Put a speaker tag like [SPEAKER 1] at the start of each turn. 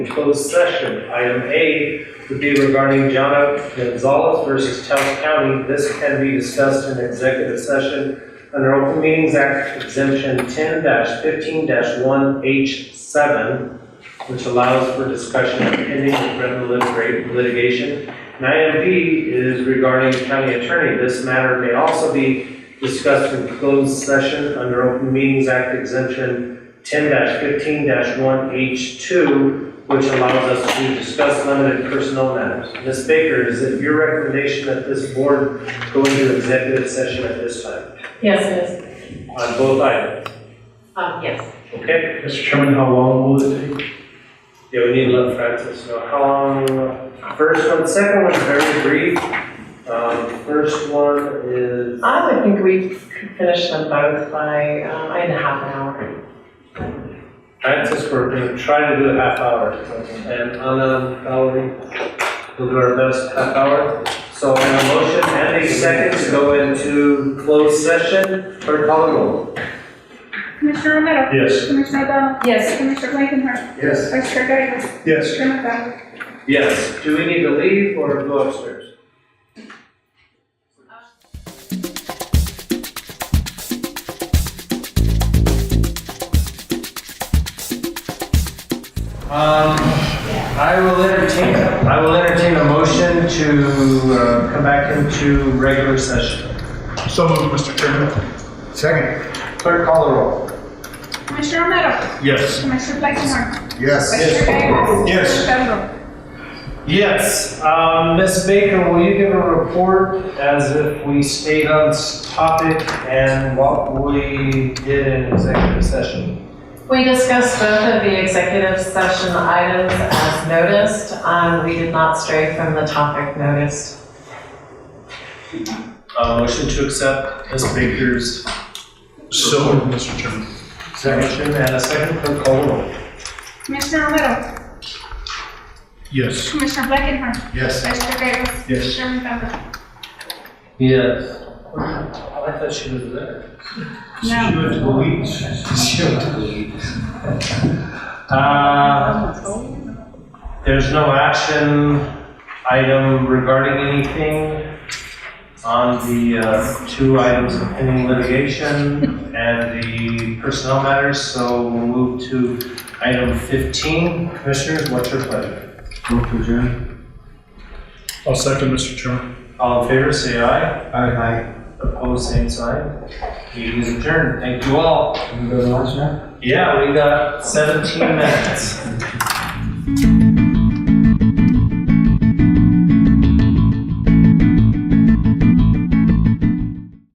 [SPEAKER 1] in closed session. Item A would be regarding John Gonzalez versus Taos County. This can be discussed in executive session under Open Meetings Act exemption ten fifteen one H seven, which allows for discussion of pending and relevant litigation. And item B is regarding county attorney. This matter may also be discussed in closed session under Open Meetings Act exemption ten fifteen one H two, which allows us to discuss limited personnel matters. Ms. Baker, is it your recommendation that this board go into executive session at this time
[SPEAKER 2] Yes, it is.
[SPEAKER 1] on both items?
[SPEAKER 2] Um, yes.
[SPEAKER 1] Okay?
[SPEAKER 3] Mr. Chairman, how long will it take?
[SPEAKER 1] Yeah, we need to let Francis know how long, uh, first one, second one's very brief. Um, first one is,
[SPEAKER 2] I would think we could finish them both by, uh, in half an hour.
[SPEAKER 1] Francis, we're gonna try to do a half hour. And Anna, Valerie, we'll do our best half hour. So on a motion and a second to go into closed session, clerk call the roll.
[SPEAKER 4] Commissioner Romero?
[SPEAKER 3] Yes.
[SPEAKER 4] Commissioner O'Donnell?
[SPEAKER 2] Yes.
[SPEAKER 4] Commissioner Blankenher?
[SPEAKER 1] Yes.
[SPEAKER 4] Vice Chair Gagos?
[SPEAKER 3] Yes.
[SPEAKER 4] Chair McDonald?
[SPEAKER 1] Yes. Do we need to leave or go upstairs? Um, I will entertain, I will entertain a motion to uh, come back into regular session.
[SPEAKER 3] So moved, Mr. Chairman.
[SPEAKER 5] Second.
[SPEAKER 1] Clerk, call the roll.
[SPEAKER 4] Commissioner Romero?
[SPEAKER 3] Yes.
[SPEAKER 4] Commissioner Blankenher?
[SPEAKER 5] Yes.
[SPEAKER 4] Vice Chair Gagos?
[SPEAKER 3] Yes.
[SPEAKER 4] Gagos?
[SPEAKER 1] Yes, um, Ms. Baker, will you give a report as if we stayed on s- topic and what we did in executive session?
[SPEAKER 2] We discussed both of the executive session items as noticed. Um, we did not stray from the topic noticed.
[SPEAKER 1] Uh, motion to accept Ms. Baker's
[SPEAKER 3] So moved, Mr. Chairman.
[SPEAKER 1] motion and a second, clerk call the roll.
[SPEAKER 4] Commissioner Romero?
[SPEAKER 3] Yes.
[SPEAKER 4] Commissioner Blankenher?
[SPEAKER 5] Yes.
[SPEAKER 4] Vice Chair Gagos?
[SPEAKER 3] Yes.
[SPEAKER 4] Chair McDonald?
[SPEAKER 1] Yes. I thought she was there.
[SPEAKER 4] No.
[SPEAKER 3] went to the weeds.
[SPEAKER 1] Uh, there's no action item regarding anything on the, uh, two items of pending litigation and the personnel matters, so we'll move to item fifteen. Commissioners, what's your pleasure?
[SPEAKER 3] I'll second, Mr. Chairman.
[SPEAKER 1] All in favor, say aye.
[SPEAKER 5] Aye.
[SPEAKER 1] Opposed, same sign. Meeting is adjourned. Thank you all.
[SPEAKER 5] Can we go to lunch now?
[SPEAKER 1] Yeah, we got seventeen minutes.